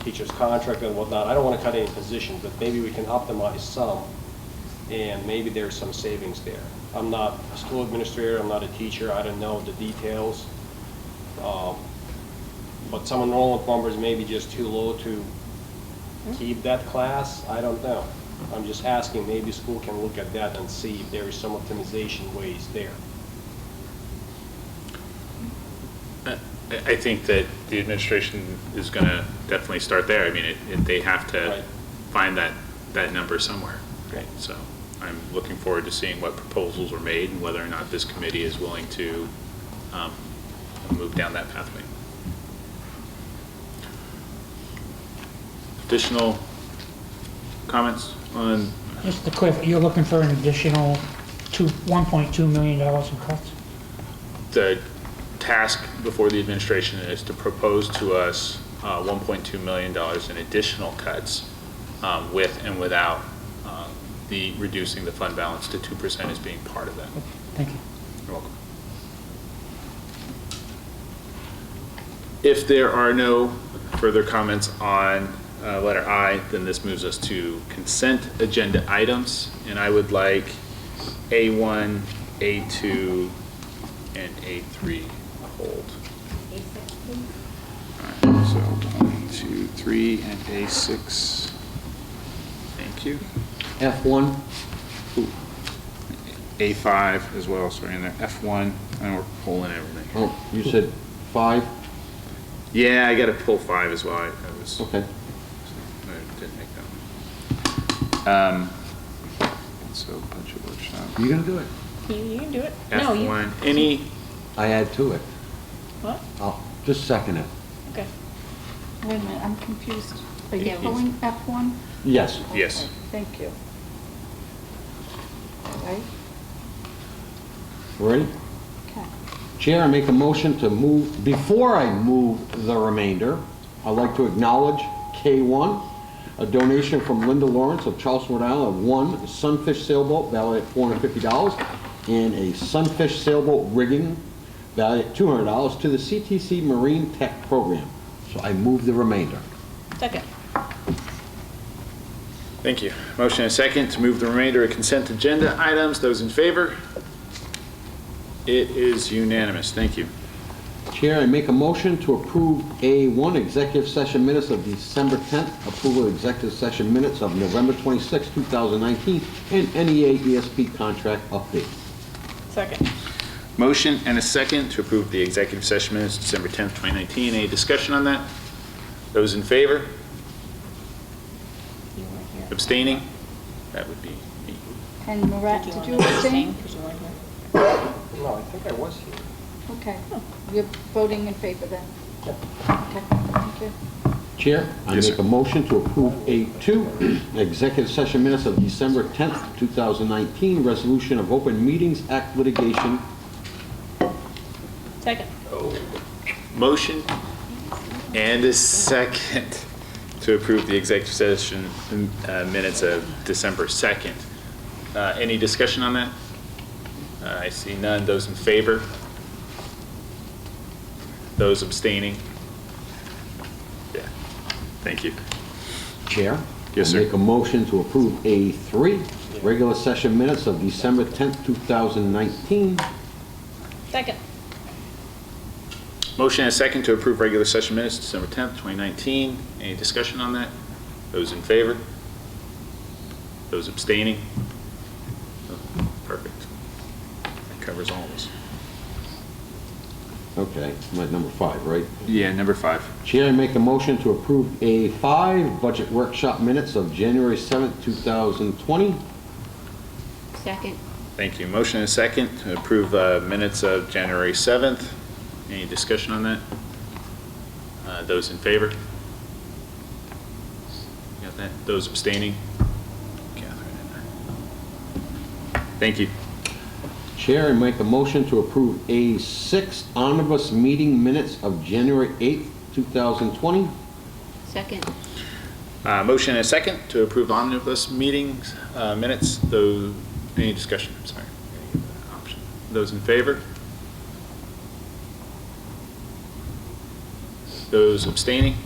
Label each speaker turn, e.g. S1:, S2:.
S1: teacher's contract and whatnot. I don't want to cut any positions, but maybe we can optimize some, and maybe there's some savings there. I'm not a school administrator, I'm not a teacher, I don't know the details. Um, But some enrollment numbers may be just too low to keep that class, I don't know. I'm just asking, maybe school can look at that and see if there is some optimization ways there.
S2: I I think that the administration is going to definitely start there. I mean, it- it- they have
S1: Right.
S2: to find that, that number somewhere.
S1: Great.
S2: So I'm looking forward to seeing what proposals are made and whether or not this committee is willing to um, move down that pathway. Additional comments on,
S3: Just a quick, you're looking for an additional two, $1.2 million in cuts?
S2: the task before the administration is to propose to us uh, $1.2 million in additional cuts um, with and without um, the, reducing the fund balance to 2% as being part of that.
S3: Thank you.
S2: You're welcome. If there are no further comments on uh, letter I, then this moves us to consent agenda items, and I would like A1, A2, and A3 hold. All right, so one, two, three, and A6. Thank you.
S4: F1,
S2: A5 as well, sorry, and there, F1, and we're pulling everything.
S4: oh, you said five?
S2: Yeah, I got to pull five as well. I, I was
S4: Okay.
S2: I didn't make that one. Um, so budget workshop.
S4: You're gonna do it?
S5: You, you can do it. No,
S2: F
S5: you,
S2: one. Any?
S4: I add to it.
S5: what?
S4: I'll just second it.
S5: Okay.
S6: Wait a minute, I'm confused. Are
S2: Yeah,
S6: you
S2: he's-
S6: pulling F1?
S4: Yes.
S2: Yes.
S6: Thank you. All right,
S4: Ready?
S6: okay.
S4: Chair, I make a motion to move, before I move the remainder, I'd like to acknowledge K1, a donation from Linda Lawrence of Charleston, Rhode Island, of one sunfish sailboat valued at $450 and a sunfish sailboat rigging valued at $200 to the CTC Marine Tech Program. So I move the remainder.
S5: Second.
S2: Thank you. Motion and second to move the remainder of consent agenda items. Those in favor? It is unanimous. Thank you.
S4: Chair, I make a motion to approve A1, executive session minutes of December 10th, approval of executive session minutes of November 26th, 2019, and E NEA ESP contract update.
S5: Second.
S2: Motion and a second to approve the executive session minutes, December 10th, 2019. Any discussion on that? Those in favor?
S5: You weren't here.
S2: Abstaining? That would be me.
S6: And Marat,
S5: Did you want
S6: did you
S5: to
S6: abstain?
S5: Because you weren't here.
S1: No, I think I was here.
S6: Okay,
S5: Oh.
S6: you're voting in favor then?
S1: Yep.
S6: Okay, thank you.
S4: Chair, I
S2: Yes,
S4: make
S2: sir.
S4: a motion to approve A2, executive session minutes of December 10th, 2019, resolution of open meetings act litigation.
S5: Second.
S2: Motion and a second to approve the executive session uh, minutes of December 2nd. Uh, Any discussion on that? Uh, I see none. Those in favor? Those abstaining? Yeah. Thank you.
S4: Chair?
S2: Yes,
S4: I
S2: sir.
S4: Make a motion to approve A3, regular session minutes of December 10th, 2019.
S5: Second.
S2: Motion and a second to approve regular session minutes, December 10th, 2019. Any discussion on that? Those in favor? Those abstaining? Oh, Perfect. That covers all of us.
S4: Okay, I'm at number five, right?
S2: Yeah, number five.
S4: Chair, I make a motion to approve A5, budget workshop minutes of January 7th, 2020.
S6: Second.
S2: Thank you. Motion and a second to approve uh, minutes of January 7th. Any discussion on that? Uh, Those in favor? You Got that? Those abstaining? Catherine and I. Thank you.
S4: Chair, I make a motion to approve A6, omnibus meeting minutes of January 8th, 2020.
S6: Second.
S2: Uh, Motion and a second to approve omnibus meetings, uh, minutes, though, any discussion, sorry. Option. Those in favor? Those abstaining?